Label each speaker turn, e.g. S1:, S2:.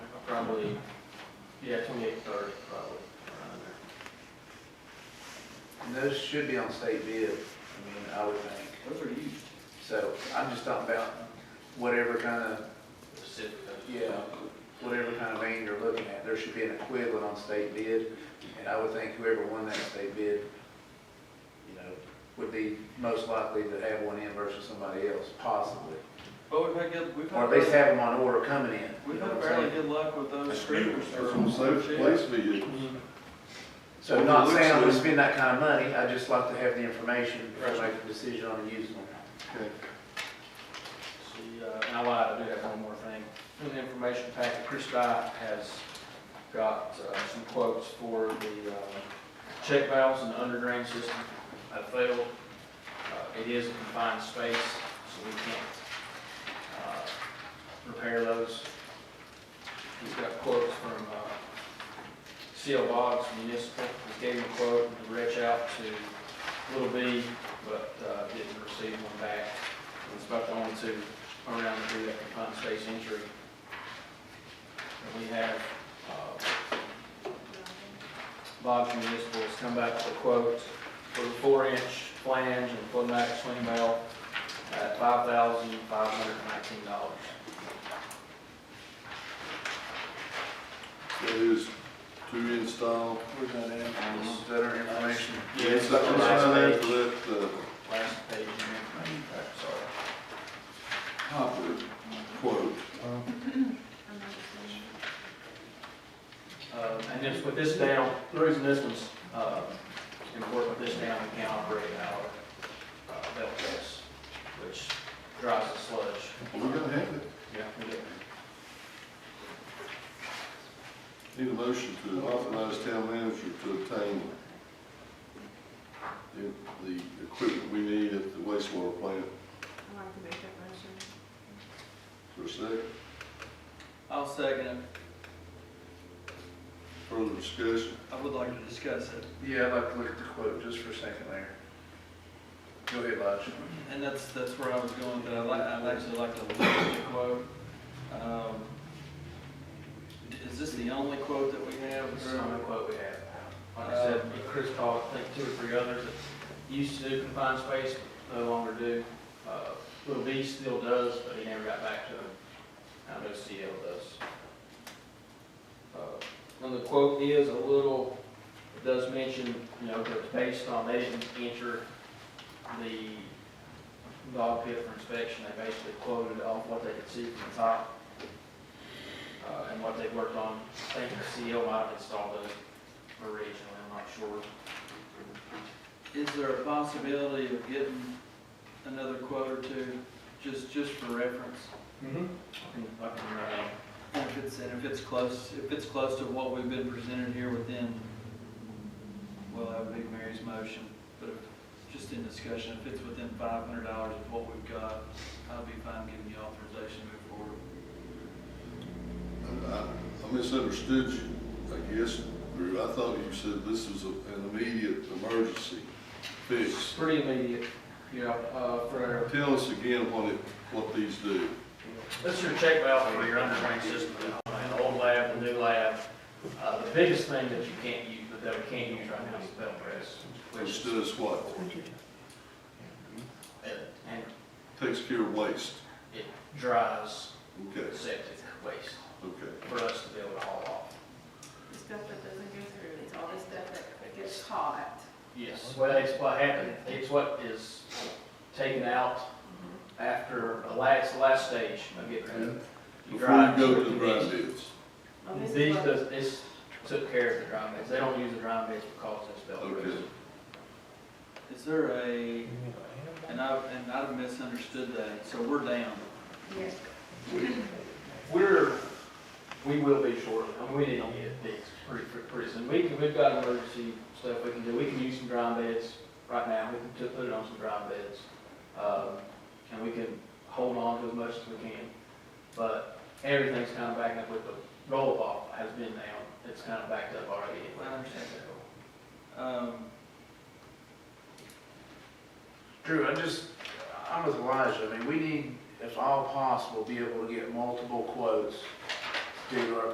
S1: probably, yeah, twenty-eight, thirty, probably. around there.
S2: And those should be on state bid, I mean, I would think.
S1: Those are used.
S2: So I'm just talking about whatever kind of,
S1: Pacific.
S2: yeah, whatever kind of vein you're looking at, there should be an equivalent on state bid. And I would think whoever won that state bid, you know, would be most likely to have one in versus somebody else, possibly.
S1: But we've had good, we've
S2: Or
S1: had,
S2: at least
S1: fairly-
S2: have them on order coming in.
S1: we've
S2: you know
S1: had
S2: what I'm
S1: fairly
S2: saying?
S1: good luck with those scooters.
S3: That's on safe place vehicles.
S1: Mm-hmm.
S2: So not saying I'm gonna spend that kind of money, I'd just like to have the information before I make a decision on a used one.
S3: Okay.
S1: See, uh, and I lied, I do have one more thing. In the information packet, Chris Dye has got uh, some quotes for the uh, check valves and the underdrain system that failed. Uh, It is a confined space, so we can't uh, repair those. He's got quotes from uh, CL Boggs Municipal, he gave him a quote to reach out to Little B, but uh, didn't receive one back. It's about the only two around through that confined space injury. And we have, uh, Bob's Municipal has come back with a quote for the four-inch flange and floodmatic swing belt at five thousand five hundred and nineteen dollars.
S3: That is to install.
S2: We're gonna add this better information.
S1: Yeah,
S3: It's not
S1: on
S3: on
S1: the
S3: there
S1: last
S3: for
S1: page,
S3: that, uh,
S1: last page in the information pack, sorry.
S3: Hopper quote.
S1: Um, and this, with this down, the reason this one's, uh, important with this down, we can operate our, uh, belt press, which drives the sludge.
S3: We're gonna have it.
S1: Yeah, we do.
S3: Need a motion to authorize town manager to obtain the, the equipment we need at the wastewater plant.
S4: I'd like to make that motion.
S3: For a second,
S5: I'll second it.
S3: further discussion.
S5: I would like to discuss it.
S2: Yeah, I'd like to look at the quote just for a second there. Go ahead, Lodge.
S5: And that's, that's where I was going, that I'd like, I'd actually like to look at the quote. Um, Is this the only quote that we have?
S1: This is the only
S5: or-
S1: quote we have. Like I said, Chris called, I think, two or three others that used to do confined space, no longer do. Uh, Little B still does, but he never got back to him. I know CL does. Uh, And the quote is a little, it does mention, you know, that it's based on, they didn't enter the dog pit for inspection. They basically quoted off what they could see from the top uh, and what they worked on. I think CL might have installed those originally, I'm not sure.
S5: Is there a possibility of getting another quote or two, just, just for reference?
S1: Mm-hmm. I can, I can, uh,
S5: And if it's, and if it's close, if it's close to what we've been presented here within, well, that would be Mary's motion, but if, just in discussion, if it's within five hundred dollars of what we've got, I'll be fine giving you authorization to move forward.
S3: I- I I misunderstood you, I guess, Drew. I thought you said this was a- an immediate emergency
S1: it's
S3: fix.
S1: pretty immediate, you know, uh, for,
S3: Tell us again what it, what these do.
S1: this is your check valve for your underground system, the old lab, the new lab. Uh, the biggest thing that you can't use, that we can't use right now is the belt press, which
S3: Which
S1: is,
S3: does what?
S1: and
S3: Takes care of waste.
S1: it dries
S3: Okay,
S1: septic waste
S3: okay.
S1: for us to be able to haul off.
S4: The stuff that doesn't go through, it's all the stuff that gets caught.
S1: Yes, well, it's what happened, it's what is taken out Mm-hmm. after the last, last stage of getting rid of. You
S3: Before you
S1: drive-
S3: go to the grind bits.
S4: Oh, this is
S1: These,
S4: what-
S1: does- this took care of the drum beds, they don't use the drum beds because it's belt
S3: Okay.
S1: press.
S5: Is there a, and I, and I've misunderstood that, so we're down.
S4: Yes,
S1: We're, we will be short, I mean, we didn't get bids pretty, pretty- pretty soon, we can, we've got emergency stuff we can do, we can use some drum beds right now, we can t- put it on some drum beds. Um, and we can hold on to as much as we can, but everything's kind of backed up with the roll off has been down, it's kind of backed up already.
S5: I understand Um,
S2: Drew, I just, I'm with Elijah, I mean, we need, if all possible, be able to get multiple quotes due to our